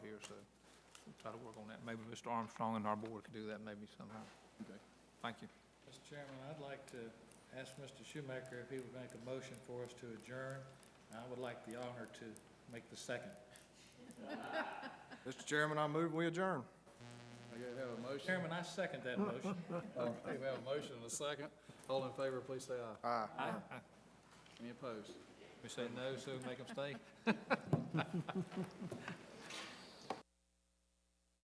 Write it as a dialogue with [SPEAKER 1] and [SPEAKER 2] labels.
[SPEAKER 1] so we'll try to work on that. Maybe Mr. Armstrong and our board could do that maybe somehow.
[SPEAKER 2] Okay.
[SPEAKER 1] Thank you.
[SPEAKER 3] Mr. Chairman, I'd like to ask Mr. Schumaker if he would make a motion for us to adjourn. And I would like the honor to make the second.
[SPEAKER 4] Mr. Chairman, I move we adjourn.
[SPEAKER 2] Okay, we have a motion.
[SPEAKER 3] Chairman, I second that motion.
[SPEAKER 2] Okay, we have a motion and a second. All in favor, please say aye.
[SPEAKER 4] Aye.
[SPEAKER 2] Any opposed?
[SPEAKER 1] We say no, so make them stay.